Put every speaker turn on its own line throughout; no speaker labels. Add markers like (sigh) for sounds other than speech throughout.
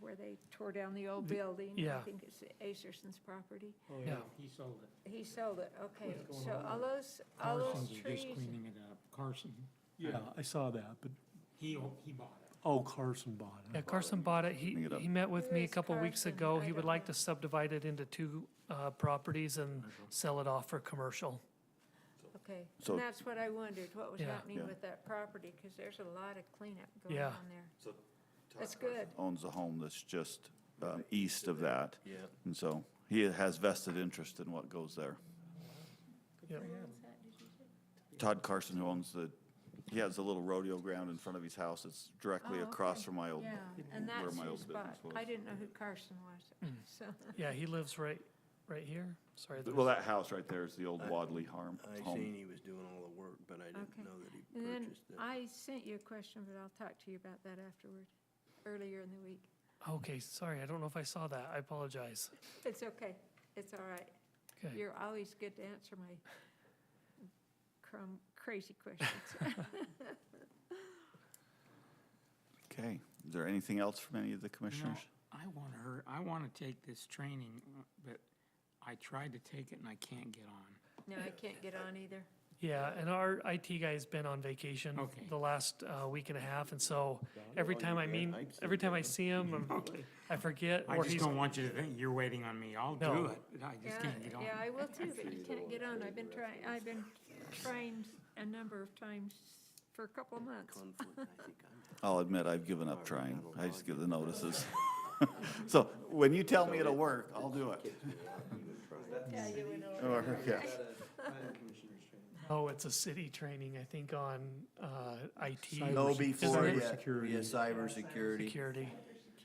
where they tore down the old building.
yeah.
I think it's Acerson's property.
Oh,
Yeah.
yeah, he sold it.
He sold it, okay.
What's going
So
on?
all those, all those
Carson's is
trees,
just cleaning it up. Carson,
Yeah,
Uh, I saw that, but,
he, o- he bought it.
oh, Carson bought
Yeah,
it.
Carson bought it.
Bring
He,
it up.
he met with
Where
me a
is
couple weeks
Carson?
ago.
I
He
don't
would like
know.
to subdivide it into two uh, properties and sell it off for commercial.
okay.
So-
And that's what I wondered, what was
Yeah.
happening
Yeah.
with that property, because there's a lot of cleanup going
Yeah.
on there. That's good.
Owns a home that's just um, east of that,
Yeah.
and so he has vested interest in what goes there.
Yep.
Todd Carson, who owns the, he has a little rodeo ground in front of his house, it's directly
Oh,
across
okay.
from my old.
Yeah, and
where
that's
my
his
old business
spot.
was.
I didn't know who Carson was,
Hmm.
so,
Yeah, he lives right, right here. Sorry. there's-
Well, that house right there is the old Wadley Harm
I
home.
seen he was doing all the work, but I
Okay.
didn't know that he
and then
purchased it.
I sent you a question, but I'll talk to you about that afterward, earlier in the week.
Okay, sorry. I don't know if I saw that. I apologize.
It's okay, it's all right.
Okay.
You're always good to answer my crum, crazy questions. (laughs)
Okay, is there anything else from any of the commissioners?
I want her, I want to take this training, uh, but I tried to take it and I can't get on.
No, I can't get on either.
Yeah, and our IT guy's been on vacation
Okay.
the last uh, week and a half, and so every time I mean,
hypes
every time I see him,
(laughs)
I'm- I forget.
I
or
just
he's-
don't want you to think you're waiting on me. I'll do
No.
it, but I just
Yeah,
can't get on.
yeah, I will too,
(laughs)
but you can't get on. I've been trying, I've been trying a number of times for a couple months.
Conflict, I think I'm.
I'll admit, I've given up trying. I just give the notices. (laughs) So when you tell me it'll work, I'll do (laughs) it. Or, yeah.
Oh, it's a city training, I think, on uh, IT. or
No,
something,
before
isn't it?
yet. Yeah, cybersecurity.
Security.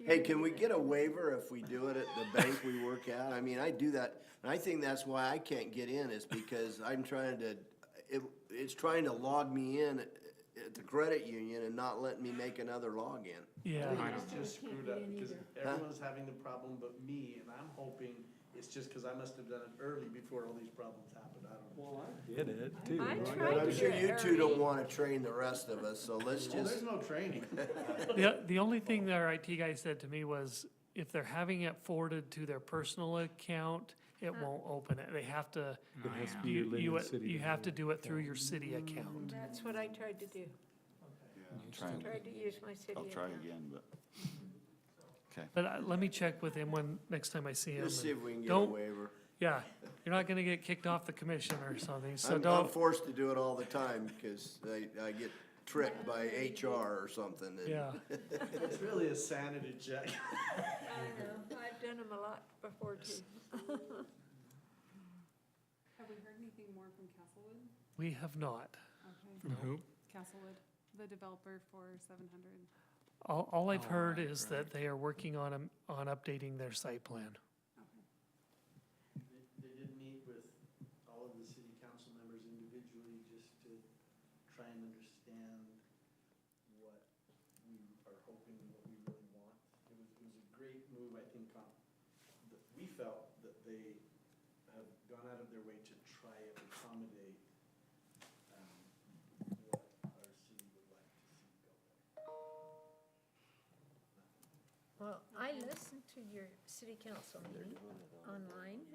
Hey, can we get a waiver if we do it at the bank we work at? I mean, I do that, and I think that's why I can't get in is because I'm trying to, it, it's trying to log me in at- at the credit union and not let me make another login.
Yeah.
I
It's just screwed up because everyone's having the problem but me, and I'm hoping it's just because I must have done it early before all these problems happened. I don't know.
Did it, too.
I
But
tried
I'm
to
sure
get
you two don't
Harry.
wanna train the rest of us, so let's
Well, there's
just,
no training.
The, the only thing that our IT guy said to me was, if they're having it forwarded to their personal account, it won't open it. They have to,
It has to be your
you, you,
Linden City.
you have to do it through your
Mm.
city account.
That's what I tried to do.
Try and-
Tried to use my city
I'll try
account.
again, but.
But I- let me check with him when, next time I see him.
let's see
and
if we can get a
Don't-
waiver.
Yeah, you're not gonna get kicked off the commission or something, so
I'm, I'm
don't,
forced to do it all the time, cause I, I get tricked by HR or something. and-
yeah.
It's really a sanity check.
I know, I've done them a lot before too.
Have we heard anything more from Castlewood?
We have not.
Okay,
From who?
Castlewood, the developer for seven hundred.
All, all I've
Oh,
heard
right,
is
right.
that they are working on, 'em- on updating their site plan.
They- They did meet with all of the city council members individually just to try and understand what we are hoping, what we really want. It was, it was a great move, I think, on, that we felt that they have gone out of their way to try and accommodate um, what our city would like to see go there.
Well, I listened to your city council meeting online,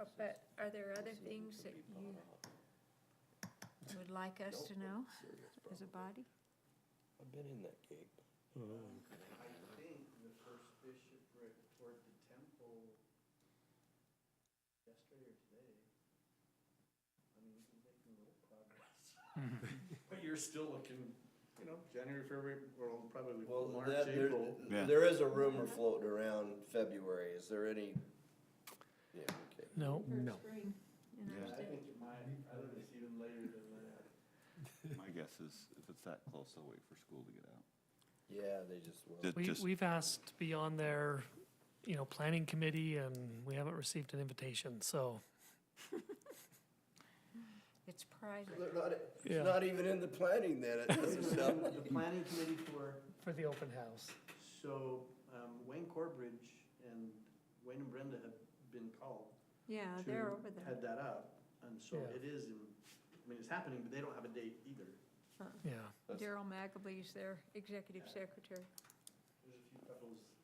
uh, but are there other things that you would like us to know as a body?
I've been in that gig.
I think the first bishopric toward the temple yesterday or today. I mean, we're making a little progress. But you're still looking, you know, January, February, or probably
Well,
March,
that, there,
April.
Yeah.
there is a rumor floating around February, is there any? Yeah, okay.
No,
Hmm.
No. Spring, you know,
I think it might, I think it's even later than that.
My guess is if it's that close, they'll wait for school to get out.
Yeah, they just will.
Ju-
we,
just-
we've asked to be on their, you know, planning committee and we haven't received an invitation, so.
it's private.
They're not,
Yeah.
it's not even in the planning then, it doesn't sound.
The planning committee for
For the open house.
So, um, Wayne Corbridge and Wayne and Brenda have been called
Yeah,
to
they're over there.
head that up. And so
Yeah.
it is, in I mean, it's happening, but they don't have a date either.
Yeah.
Daryl McAbey's their executive secretary.
There's a few couples